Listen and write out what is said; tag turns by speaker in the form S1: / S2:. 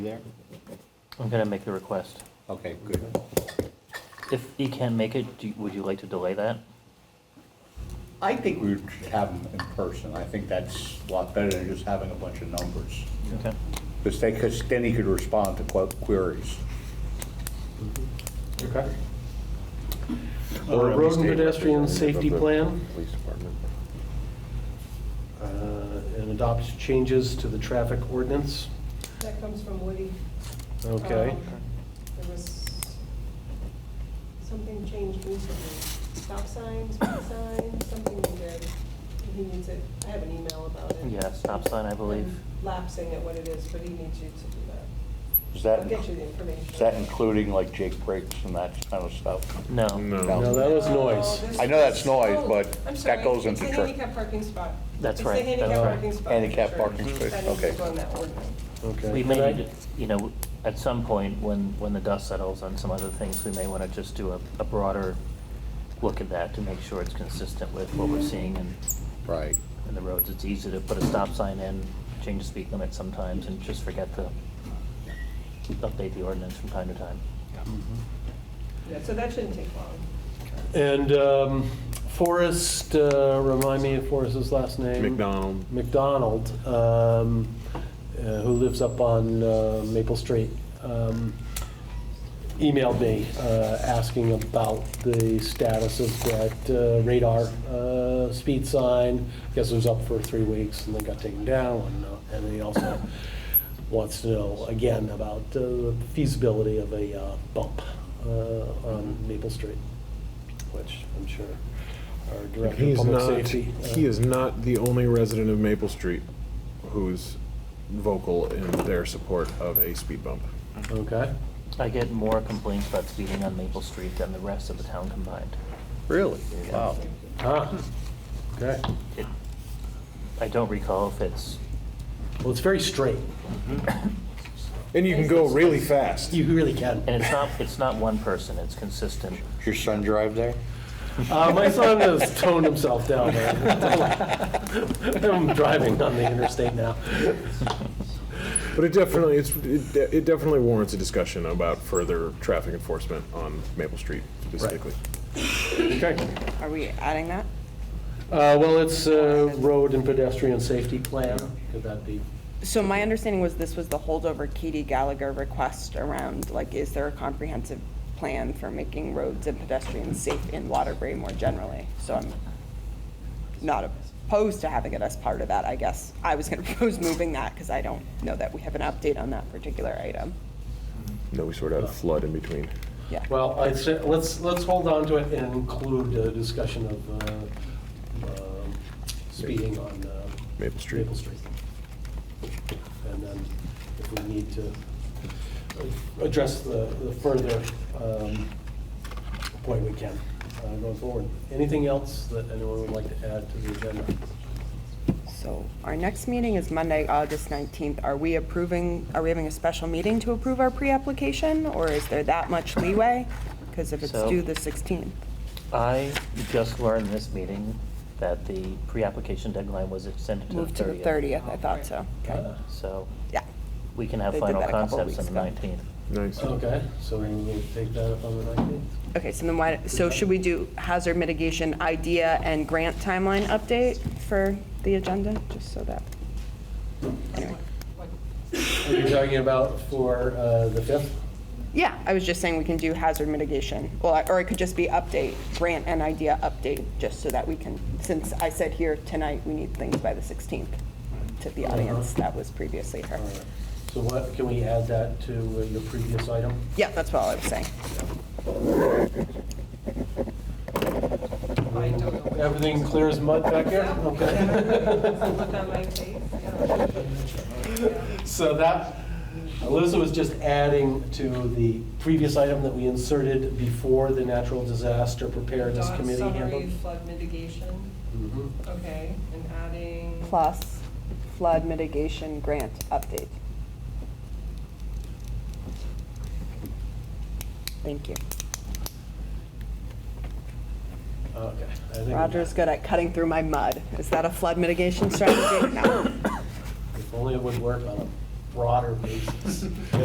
S1: there?
S2: I'm gonna make a request.
S1: Okay, good.
S2: If he can make it, do, you- would you like to delay that?
S1: I think we should have them in person. I think that's a lot better than just having a bunch of numbers.
S2: Okay.
S1: Because they, because then he could respond to que- queries.
S3: Okay.
S4: Uh, Road and pedestrian safety plan
S5: Police department.
S4: uh, and adopt changes to the traffic ordinance.
S6: That comes from Woody.
S4: Okay.
S6: Um, There was something changed recently, stop signs, speed signs, something he did. He needs it, I have an email about it.
S2: Yeah, stop sign, I believe.
S6: I'm Lapsing at what it is, but he needs you to do that.
S1: Is
S6: I'll
S1: that,
S6: get you the information.
S1: is that including like Jake breaks and that kind of stuff?
S2: No.
S4: No, that was
S6: Oh,
S4: noise.
S6: this-
S1: I know that's noise,
S6: oh,
S1: but
S6: I'm
S1: that
S6: sorry,
S1: goes into
S6: It's
S1: tr-
S6: the handicap parking spot.
S2: That's
S6: It's the
S2: right, that's
S6: handicap
S4: right.
S6: parking spot.
S1: Handicap
S6: Sure.
S1: parking space,
S6: That needs to
S1: okay.
S6: go in that ordinance.
S4: Okay.
S2: We
S4: Can I-
S2: may need, to- you know, at some point, when, when the dust settles on some other things, we may wanna just do a, a broader look at that to make sure it's consistent with what we're seeing in,
S1: Right.
S2: in the roads. It's easy to put a stop sign in, change the speed limit sometimes, and just forget to update the ordinance from time to time.
S5: Mm-hmm.
S6: Yeah, so that shouldn't take long.
S4: And um, Forrest, uh, remind me of Forrest's last name.
S5: McDonald.
S4: McDonald, um, uh, who lives up on uh, Maple Street, um, emailed me uh, asking about the status of that uh, radar uh, speed sign. I guess it was up for three weeks and then got taken down. and, uh, And he also wants to know again about uh, the feasibility of a uh, bump uh, on Maple Street, which I'm sure our
S5: He
S4: Director of
S5: is
S4: Public
S5: not,
S4: Safety. uh,
S5: he is not the only resident of Maple Street who's vocal in their support of a speed bump.
S4: Okay.
S2: I get more complaints about speeding on Maple Street than the rest of the town combined.
S1: Really? Wow.
S4: Ah, okay.
S2: It- I don't recall if it's
S4: Well, it's very straight.
S5: And you can go really fast.
S4: You really can.
S2: And it's not, it's not one person, it's consistent.
S1: Does your son drive there?
S4: Uh, my son has toned himself down. man. I'm driving on the interstate now.
S5: But it definitely, it's, it de- it definitely warrants a discussion about further traffic enforcement on Maple Street specifically.
S4: Okay.
S7: Are we adding that?
S4: Uh, well, it's uh, road and pedestrian safety plan. Could that be?
S7: So my understanding was this was the holdover Katie Gallagher request around, like, is there a comprehensive plan for making roads and pedestrians safe in Waterbury more generally? So I'm not opposed to having it as part of that, I guess. I was gonna propose moving that, because I don't know that we have an update on that particular item.
S5: No, we sort of had a flood in between.
S7: Yeah.
S4: Well, I'd say, let's, let's hold on to it and include a discussion of uh, um, speeding on uh,
S5: Maple Street.
S4: Maple Street. And then if we need to address the the further um, point we can uh, going forward. Anything else that anyone would like to add to the agenda?
S7: So our next meeting is Monday, August 19th. Are we approving, are we having a special meeting to approve our pre-application, or is there that much leeway? Because if it's
S2: So-
S7: due the 16th.
S2: I just learned this meeting that the pre-application deadline was extended to the 30th.
S7: Moved to the 30th, I thought so. Okay.
S2: So
S7: Yeah.
S2: we can have
S7: They did
S2: final
S7: that a couple
S2: concepts on
S7: weeks
S2: the
S7: ago.
S2: 19th.
S5: Nice.
S4: Okay, so we'll take that up on the 19th.
S7: Okay, so then why, so should we do hazard mitigation idea and grant timeline update for the agenda, just so that? Anyway.
S4: Are you talking about for uh, the 5th?
S7: Yeah, I was just saying we can do hazard mitigation, well, I- or it could just be update, grant and idea update, just so that we can, since I said here tonight, we need things by the 16th to the audience that was previously heard.
S4: Uh-huh. All right. So what, can we add that to uh, your previous item?
S7: Yeah, that's what I was saying.
S6: I don't know.
S4: Everything clear as mud back here?
S6: Yeah. Look on
S4: Okay.
S6: my face, yeah.
S4: So that, Alyssa was just adding to the previous item that we inserted before the natural disaster preparedness
S6: Dot
S4: committee handbook.
S6: Summary flood mitigation,
S4: Mhm.
S6: okay, and adding.
S7: Plus flood mitigation grant update. Thank you.
S4: Okay. I think-
S7: Roger's good at cutting through my mud. Is that a flood mitigation strategy? No.
S4: If only it would work on him. broader basis.